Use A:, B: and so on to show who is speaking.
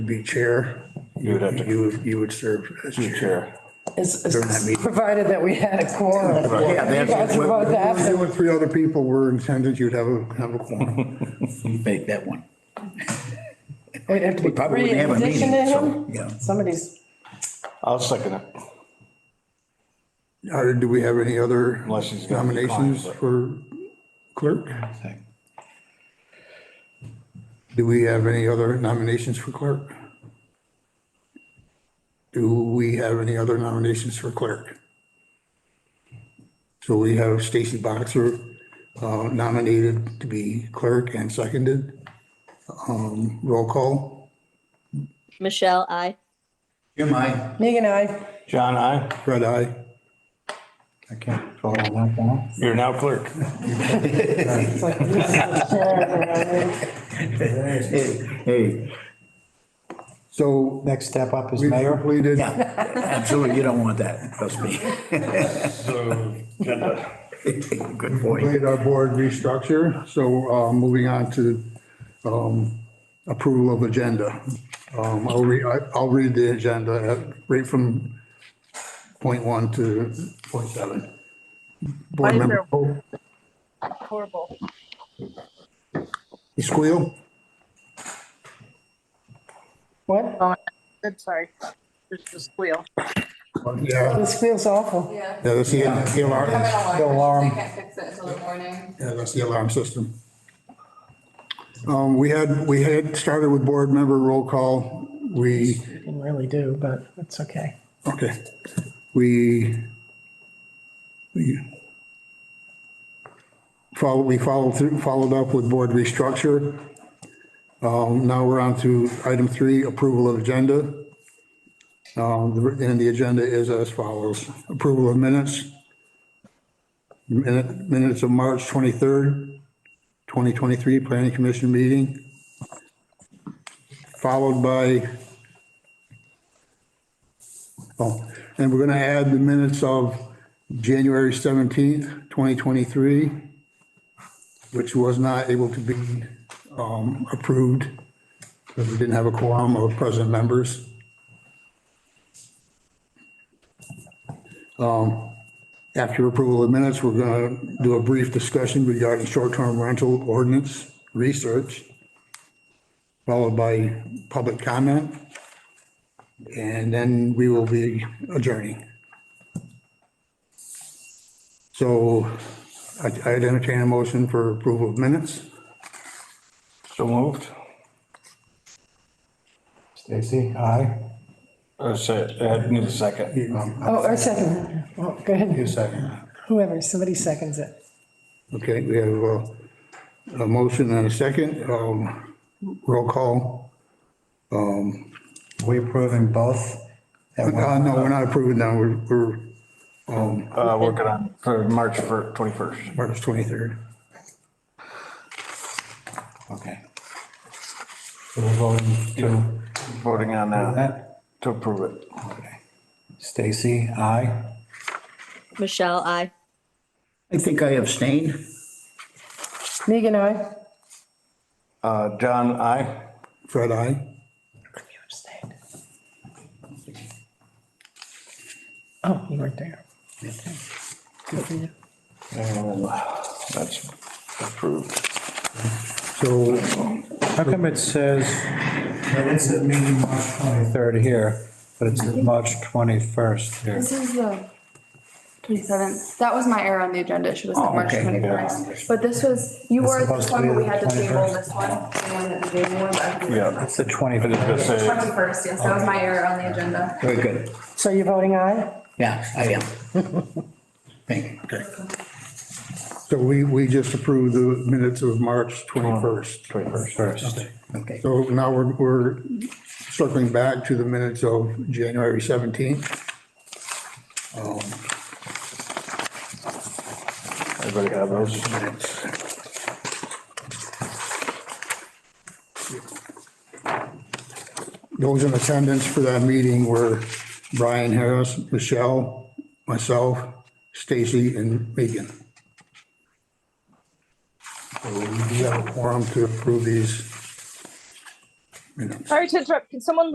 A: be chair.
B: You would have to-
A: You, you would serve as chair.
B: Chair.
C: It's,
A: During that
C: it's
A: meeting.
C: provided that we had a quorum.
D: Yeah,
C: You guys are about to have
A: If you
C: to-
A: and three other people were intended, you'd have a, have a quorum.
D: make that one.
C: We'd have to be
D: Probably
C: three
D: wouldn't
C: in
D: have a
C: addition to
D: meeting, so,
C: him.
D: yeah.
C: Somebody's,
B: I'll second it.
A: Or do we have any other
B: Unless he's got any
A: nominations
B: conflict.
A: for clerk? Do we have any other nominations for clerk? Do we have any other nominations for clerk? So we have Stacy Boxer uh, nominated to be clerk and seconded. Um, Roll call.
E: Michelle, I.
D: Jim, I.
C: Megan, I,
B: John, I,
A: Fred, aye.
D: I can't call that one.
B: you're now clerk.
C: it's like, this is the chair,
D: Hey, hey,
A: So
F: Next step up is
A: we
F: mayor.
A: completed.
D: absolutely, you don't want that, trust me. Good
F: uh,
D: boy.
A: Complete our board restructure, so uh, moving on to um, approval of agenda. Um, I'll read, I'll read the agenda at- right from point one to point seven. Board
G: Why is
A: member, Pope,
G: horrible.
A: you squeal?
C: what?
G: Oh, good, sorry. There's the squeal.
A: Yeah,
C: This feels awful.
H: Yeah.
A: yeah, that's the that's the alarm,
H: Have an
A: yeah,
F: The alarm.
H: alarm, they can't fix it until the morning.
A: that's the alarm system. Um, We had, we had started with board member roll call. We
C: Didn't really do, but it's okay.
A: Okay, we, we follow, we followed through, followed up with board restructure. Um, now we're on to item three, approval of agenda. Um, the- and the agenda is as follows, approval of minutes. Minute, minutes of March twenty-third, twenty twenty-three, planning commission meeting. Followed by Oh, and we're going to add the minutes of January 17th, 2023, which was not able to be um, approved because we didn't have a quorum of present members. Um, After approval of minutes, we're going to do a brief discussion regarding short-term rental ordinance research, followed by public comment. And then we will be adjourning. So I I entertain a motion for approval of minutes.
B: So moved.
F: Stacy, aye.
B: Uh, se- uh, need a second.
C: Oh, or second, Oh, go ahead,
F: second.
C: whoever, somebody seconds it.
A: Okay, we have uh, a motion and a second. Um, Roll call.
F: We approving both?
A: Uh,
F: at one-
A: No, we're not approving now. We're- We're
B: Uh, working on for March fir- 21st.
A: March 23rd.
F: Okay. So we're voting to
B: Voting on that
F: that?
B: to approve it.
F: Okay. Stacy, aye.
E: Michelle, I.
D: I think I abstained.
C: Megan, I,
B: Uh, John, I,
A: Fred, aye.
C: you abstained. Oh, you weren't there. Good for you.
B: and that's approved.
A: So
F: How come it says, it's a meeting March 23rd here, but it's March 21st here?
H: This is the twenty-seventh. That was my error on the agenda. It should have said
D: Oh,
H: March
D: okay.
H: twenty-first. But this was, you
F: It's
H: were
F: supposed
H: this
F: to
H: one,
F: be
H: but we
F: the
H: had to table
F: 21st.
H: this one. The one that the Jamie one, but I think
B: Yeah.
F: It's the
B: I was gonna
F: 21st.
B: say,
H: Twenty-first, yes, that was my error on the agenda.
D: Very good.
C: So you're voting aye?
D: Yeah, I am. Thank you.
A: so we we just approved the minutes of March 21st.
B: 21st.
F: First.
D: Okay.
A: So now we're, we're circling back to the minutes of January 17th.
B: Everybody got those?
A: Those in attendance for that meeting were Brian Harris, Michelle, myself, Stacy, and Megan. So we do have a quorum to approve these minutes.
G: Sorry to interrupt. Can someone